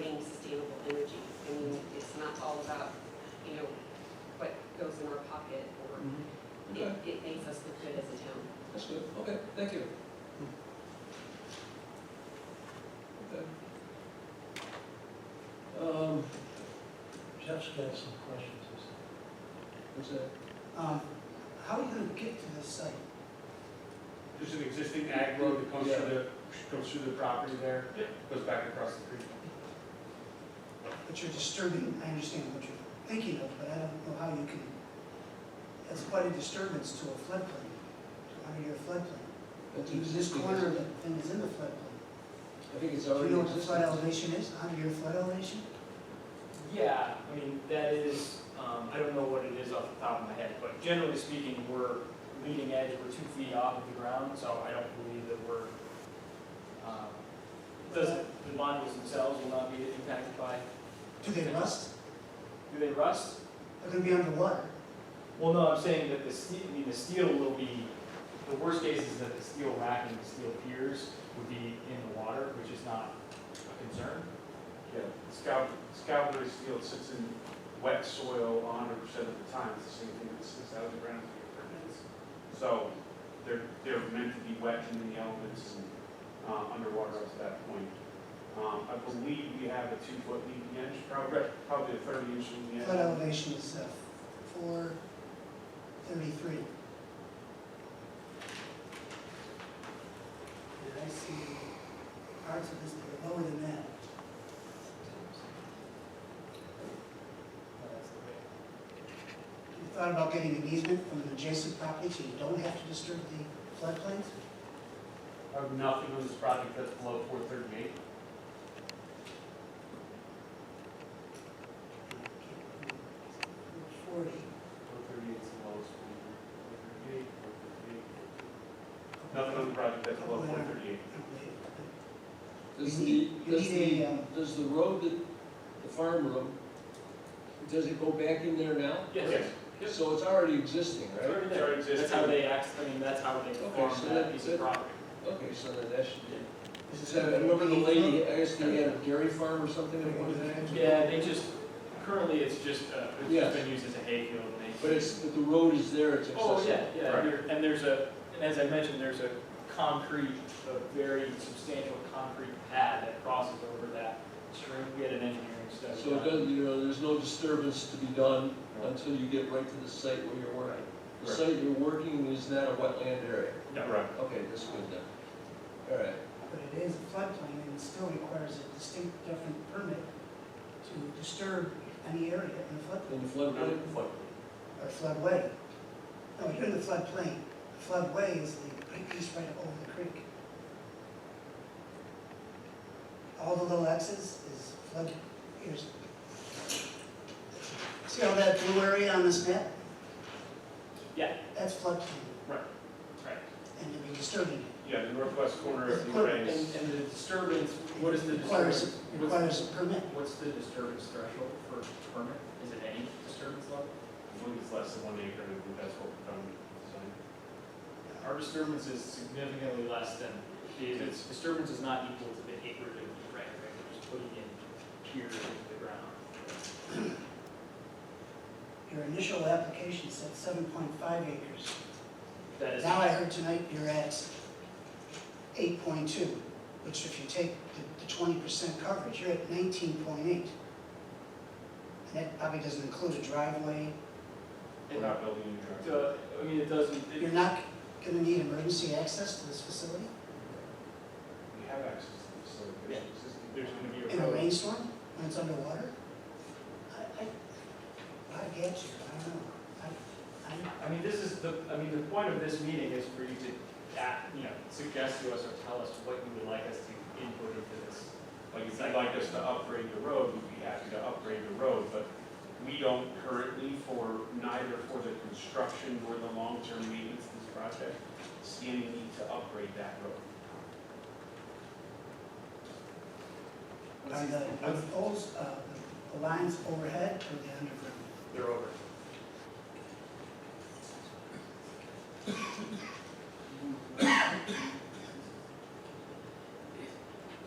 being sustainable energy. I mean, it's not all about, you know, what goes in our pocket or Okay, it, it makes us look good as a town. Mm-hmm. that's good, okay, thank you. Okay. Um, Jeff's got some questions. what's that? Um, How are you gonna get to this site? There's an existing ag road that comes through the, goes through the property there. Goes back across the creek. But you're disturbing, I understand what you're thinking of, but I don't know how you can, that's quite a disturbance to a floodplain, to under your floodplain. That's Even This existing, corner of isn't the it? thing is in the floodplain. I think it's Do you already know what the existing. flood elevation is, under your flood elevation? Yeah, I mean, that is, um, I don't know what it is off the top of my head, but generally speaking, we're leading edge, we're two feet off of the ground, so I don't believe that we're, um, it doesn't, the modules themselves will not be impacted by, Do they rust? do they rust? They're gonna be underwater. Well, no, I'm saying that the steel, I mean, the steel will be, the worst case is that the steel rack and the steel piers would be in the water, which is not a concern. Yeah, scout, Scalabry's field sits in wet soil hundred percent of the time, it's the same thing that sits out of the ground for your permits. So they're, they're meant to be wet and in the elements and, uh, underwater up to that point. Um, I believe we have a two-foot leading edge, probably, probably a thirty-inch leading edge. Flood elevation is uh, four thirty-three. And I see parts of this that are lower than that. You thought about getting an easement from an adjacent property so you don't have to disturb the floodplains? I have nothing on this project that's below four thirty-eight. Forty, Four thirty-eight is the lowest. Four thirty-eight, four thirty-eight. Nothing on the project that's below four thirty-eight. Does You the, need- you does need the, a, um, does the road that, the farm road, does it go back in there now? Yes. So it's already existing, It's right? already It's there. already That's existing. how they act, I mean, that's how they Okay, farm so that- that piece that- of property. Okay, so then that should be. This is So I remember the gonna be- lady, I guess they had a dairy farm or something at one time? Yeah, they just, currently it's just, uh, it's Yes. just been used as a hayfield and they. But it's, but the road is there, it's accessible. Oh, yeah, yeah, Right. There- and there's a, and as I mentioned, there's a concrete, a very substantial concrete pad that crosses over that stream. We had an engineering study. So it done. doesn't, you know, there's no disturbance to be done until you get right to the site where you're working. The Right. site you're working is not a wetland area. Yeah, right. Okay, that's good then. All right. But it is a floodplain and it still requires a distinct different permit to disturb any area in the flood, And the floodplain? or floodway. No, you're in the floodplain. The Floodway is the piece right over the creek. All the little X's is flood, here's. See all that blue area on this map? Yeah. That's floodplain Right. and you'll be disturbing it. Yeah, the northwest corner of the Put- And, arrays. and the disturbance, what is the Requires- disturbance? What's, Requires a permit. what's the disturbance threshold for permit? Is it any disturbance level? I believe it's less than one acre, I think that's what we've done with the design. Our disturbance is significantly less than, the the disturbance is not equal to the acreage of the right, right, we're just putting in piers into the ground. Your initial application said seven point five acres. That is, Now I heard tonight you're at eight point two, which if you take the- the twenty percent coverage, you're at nineteen point eight. And that probably doesn't include a driveway. We're not building a new driveway. uh, I mean, it doesn't, it- You're not gonna need emergency access to this facility We have access to the facility. Yeah. existing- there's gonna be in a a road. rainstorm when it's underwater? I, I, I get you, I don't know. I, I, I mean, this is the, I mean, the point of this meeting is for you to, act- you know, suggest to us or tell us what you would like us to input into this. Like, if you'd like us to upgrade the road, we'd be happy to upgrade the road, but we don't currently for, neither for the construction nor the long-term maintenance of this project, see any need to upgrade that road. are the, are those, uh, the lines overhead or the underground? They're over.